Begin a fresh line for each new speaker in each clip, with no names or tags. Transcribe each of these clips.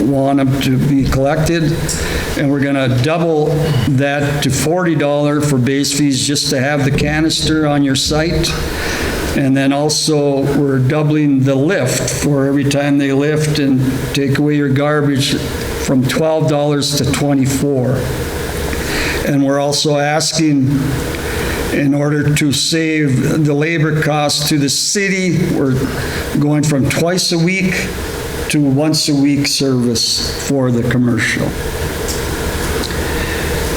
want them to be collected, and we're gonna double that to $40 for base fees just to have the canister on your site. And then also, we're doubling the lift for every time they lift and take away your garbage from $12 to 24. And we're also asking, in order to save the labor costs to the city, we're going from twice a week to once a week service for the commercial.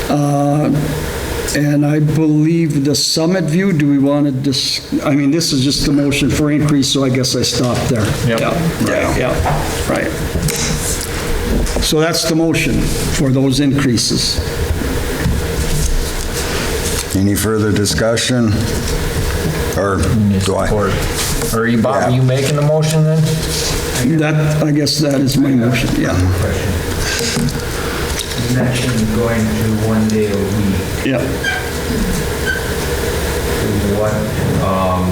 Uh, And I believe the Summit View, do we want to dis, I mean, this is just a motion for increase, so I guess I stop there.
Yep.
Yeah, yeah, right. So that's the motion for those increases.
Any further discussion? Or do I?
Or- Or you, Bob, are you making the motion then?
That, I guess that is my motion, yeah,
question. You mentioned going to one day a week.
yeah.
What, um,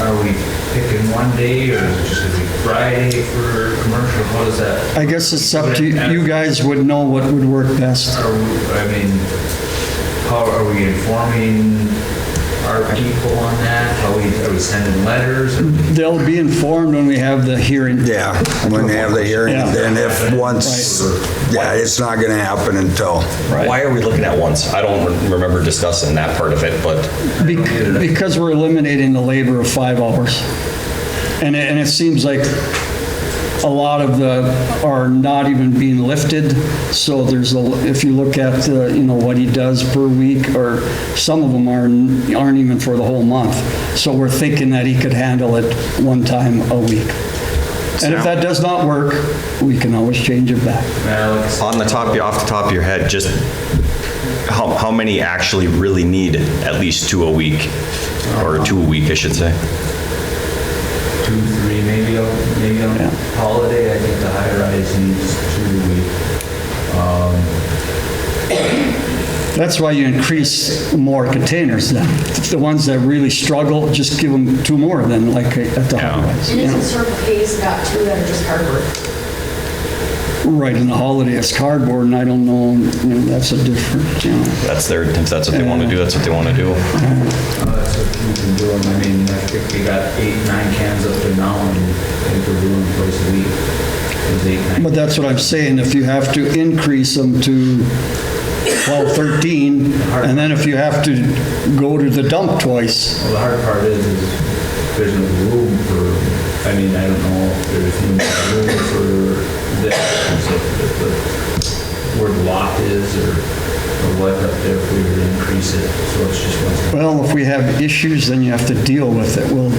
are we picking one day or is it just gonna be Friday for commercial? How does that?
I guess it's up to, you You guys would know what would work best.
Are, we- I mean, how are we informing our people on that? How we, are we sending letters?
They'll be informed when we have the hearing.
Yeah, when they have the hearing,
Yeah.
then if once, yeah, it's not gonna happen until,
Why are we looking at once? I don't re- remember discussing that part of it, but
Be- Because we're eliminating the labor of five hours. And it, and it seems like a lot of the, are not even being lifted. So there's, a if you look at, the, you know, what he does per week, or some of them aren't, aren't even for the whole month. So we're thinking that he could handle it one time a week. And if that does not work, we can always change it back.
Alex,
on the top, off the top of your head, just how, how many actually really need at least two a week? Or two a week, I should say.
two, three, maybe, on- maybe on
Yeah.
holiday, I think the high rise needs two.
That's why you increase more containers then. The ones that really struggle, just give them two more than like at the holidays.
And isn't Circle K's got two that are just cardboard?
Right, and the holiday is cardboard and I don't know, you know, that's a different, you know.
That's their, if that's what they want to do, that's what they want to do.
Uh, That's what we've been doing, I mean, I think we got eight, nine cans up to now, and I think we're doing twice a week. It was eight, nine.
But that's what I'm saying, if you have to increase them to 12, 13, and then if you have to go to the dump twice,
Well, the hard part is, is there's no room for, I mean, I don't know if there's no room for this, so if the word lot is, or or what up there, if we would increase it, so it's just one.
well, if we have issues, then you have to deal with it. We'll,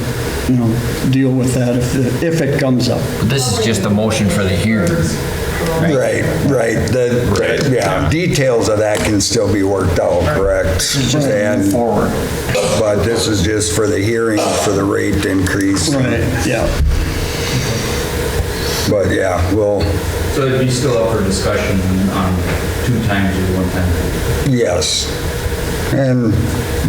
you know, deal with that if, if it comes up.
This is just a motion for the hearing.
right, right, the, yeah, details of that can still be worked out, correct? And,
Forward.
but this is just for the hearing, for the rate increase.
Yeah.
But yeah, well,
So it'd be still up for discussion on two times or one time.
yes. And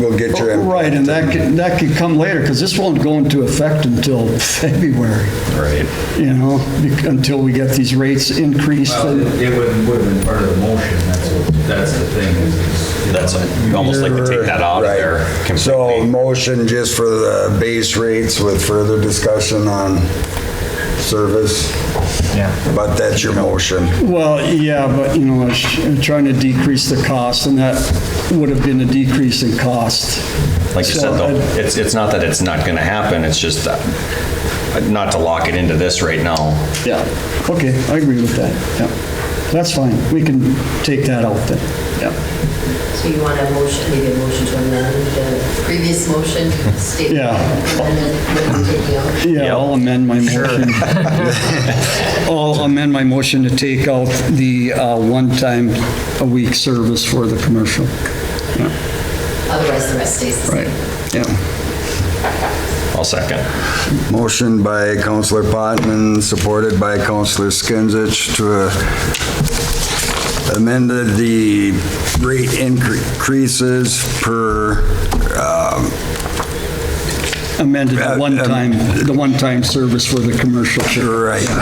we'll get your input.
Right, and that could, that could come later, because this won't go into effect until February,
Right.
you know, bec- until we get these rates increased.
Well,
and-
it it would, would have been part of the motion, that's, what- that's the thing, is, is, you know,
That's, you almost like to take that out of
Right.
there
So
completely.
motion just for the base rates with further discussion on service,
Yeah.
but that's your motion.
Well, yeah, but, you know, it's- it's trying to decrease the cost, and that would have been a decrease in cost.
Like you
So
said, though,
I'd-
it's, it's not that it's not going to happen, it's just that, not to lock it into this right now.
Yeah, okay, I agree with that, yeah. That's fine, we can take that out then, yeah.
So you want a motion, maybe a motion to amend the previous motion, state
Yeah.
amendment, what you're taking out?
Yeah, I'll amend my motion. I'll amend my motion to take out the uh, one-time a week service for the commercial.
Otherwise, the rest stays the same.
Right, yeah.
I'll second.
Motion by Counselor Potman, supported by Counselor Skinsich to uh, amend the rate increases per, um,
Uh, um, Amended the one-time, the one-time service for the commercial.
right,